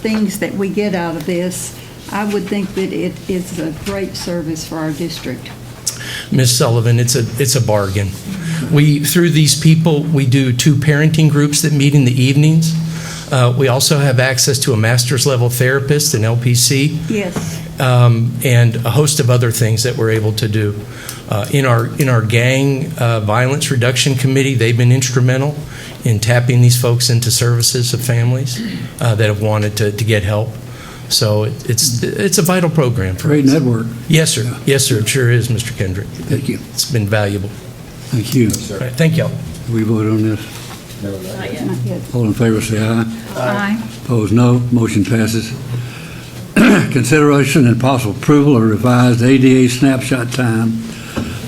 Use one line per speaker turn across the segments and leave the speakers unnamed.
things that we get out of this, I would think that it is a great service for our district.
Ms. Sullivan, it's a, it's a bargain. We, through these people, we do two parenting groups that meet in the evenings. Uh, We also have access to a master's level therapist, an LPC,
Yes.
um, and a host of other things that we're able to do. Uh, In our, in our gang uh, violence reduction committee, they've been instrumental in tapping these folks into services of families uh, that have wanted to, to get help. So it- it's, it's a vital program for us.
Great network.
Yes, sir. Yes, sir. It sure is, Mr. Kendrick.
Thank you.
It's been valuable.
Thank you.
All right, Thank y'all.
We vote on this.
Not yet.
All in favor, say aye.
Aye.
Opposed, no. Motion passes. Consideration and possible approval of revised ADA snapshot time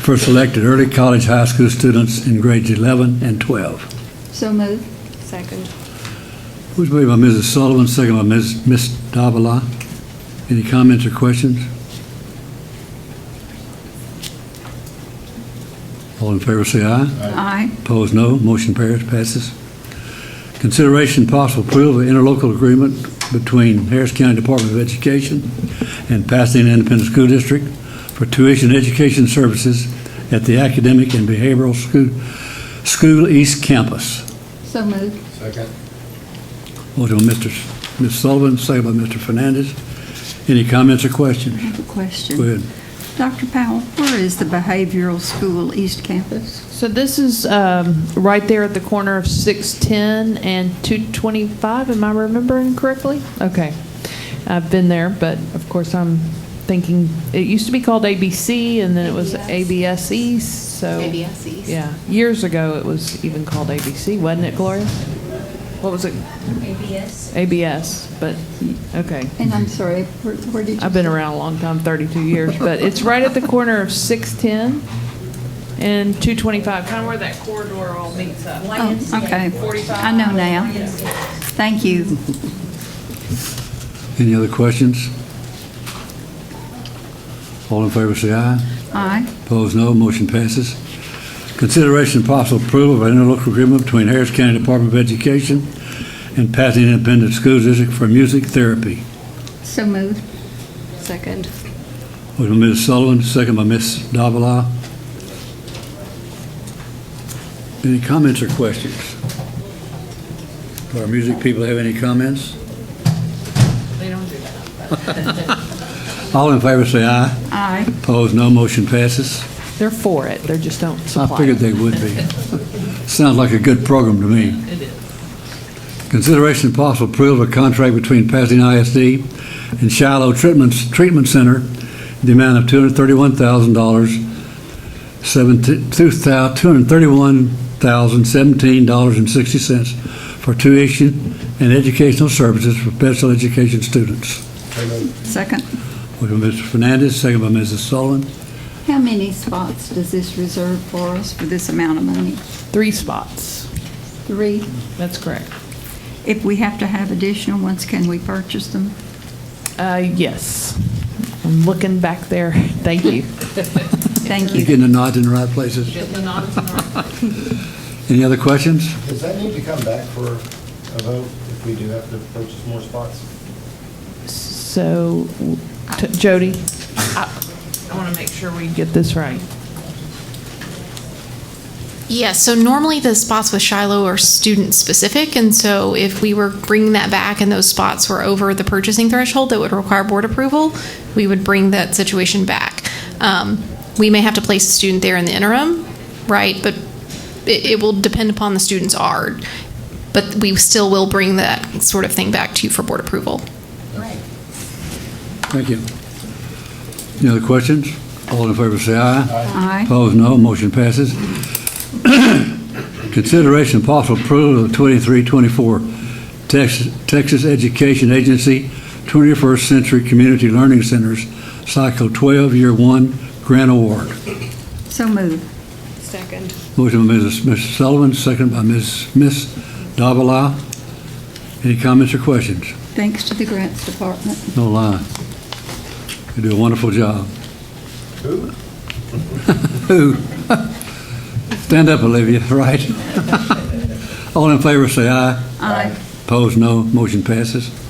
for selected early college high school students in grades 11 and 12.
So moved.
Second.
Who's made by Mrs. Sullivan, second by Ms. Ms. Davila. Any comments or questions? All in favor, say aye.
Aye.
Opposed, no. Motion par- passes. Consideration and possible approval of interlocal agreement between Harris County Department of Education and Pasadena Independent School District for tuition education services at the Academic and Behavioral School, School East Campus.
So moved.
Second.
Motion by Mr. S- Ms. Sullivan, second by Mr. Fernandez. Any comments or
I
questions?
have a
Go
question.
ahead.
Dr. Powell, where is the behavioral school East Campus?
So this is um, right there at the corner of 610 and 225, am I remembering correctly? Okay. I've been there, but of course I'm thinking, it used to be called ABC, and then it was ABS East, so.
ABS East.
Yeah, years ago, it was even called ABC, wasn't it, Gloria? What was it? ABS. ABS, but, okay.
And I'm sorry, where where did you?
I've been around a long time, 32 years, but it's right at the corner of 610 and 225, kind of where that corridor all meets up.
Oh, Okay. I know now. Thank you.
Any other questions? All in favor, say aye.
Aye.
Opposed, no. Motion passes. Consideration and possible approval of an interlocal agreement between Harris County Department of Education and Pasadena Independent School District for music therapy.
So moved.
Second.
Motion by Ms. Sullivan, second by Ms. Davila. Any comments or questions? Do our music people have any comments?
They don't do that.
All in favor, say aye.
Aye.
Opposed, no. Motion passes.
They're for it, they just don't
I
supply
figured
it.
they would be. Sounds like a good program to me.
It is.
Consideration and possible approval of a contract between Pasadena ISD and Shiloh Treatment, Treatment Center, in the amount of two hundred thirty-one thousand dollars, two hundred thirty-one thousand seventeen dollars and sixty cents for tuition and educational services for special education students.
Second.
Motion by Mr. Fernandez, second by Mrs. Sullivan.
How many spots does this reserve for us for this amount of money?
Three spots,
Three.
that's correct.
If we have to have additional ones, can we purchase them?
Uh, Yes, I'm looking back there, thank you.
Thank
You
you.
getting the nods in the right places? Any other questions?
Does that need to come back for a vote if we do have to purchase more spots?
So, t- Jody, I want to make sure we get this right.
Yeah, so normally the spots with Shiloh are student specific, and so if we were bringing that back and those spots were over the purchasing threshold that would require board approval, we would bring that situation back. Um, we may have to place a student there in the interim, right? But it, it will depend upon the student's art. But we still will bring that sort of thing back to you for board approval.
Thank you. Any other questions? All in favor, say aye.
Aye.
Opposed, no. Motion passes. Consideration and possible approval of 2324 Texas Texas Education Agency 21st Century Community Learning Centers Cycle 12, Year 1 Grant Award.
So moved.
Second.
Motion by Mrs. Mr. Sullivan, second by Ms. Ms. Davila. Any comments or questions?
Thanks to the grants department.
No lie. They do a wonderful job.
Who?
Who? Stand up, Olivia, right? All in favor, say aye.
Aye.
Opposed, no. Motion passes.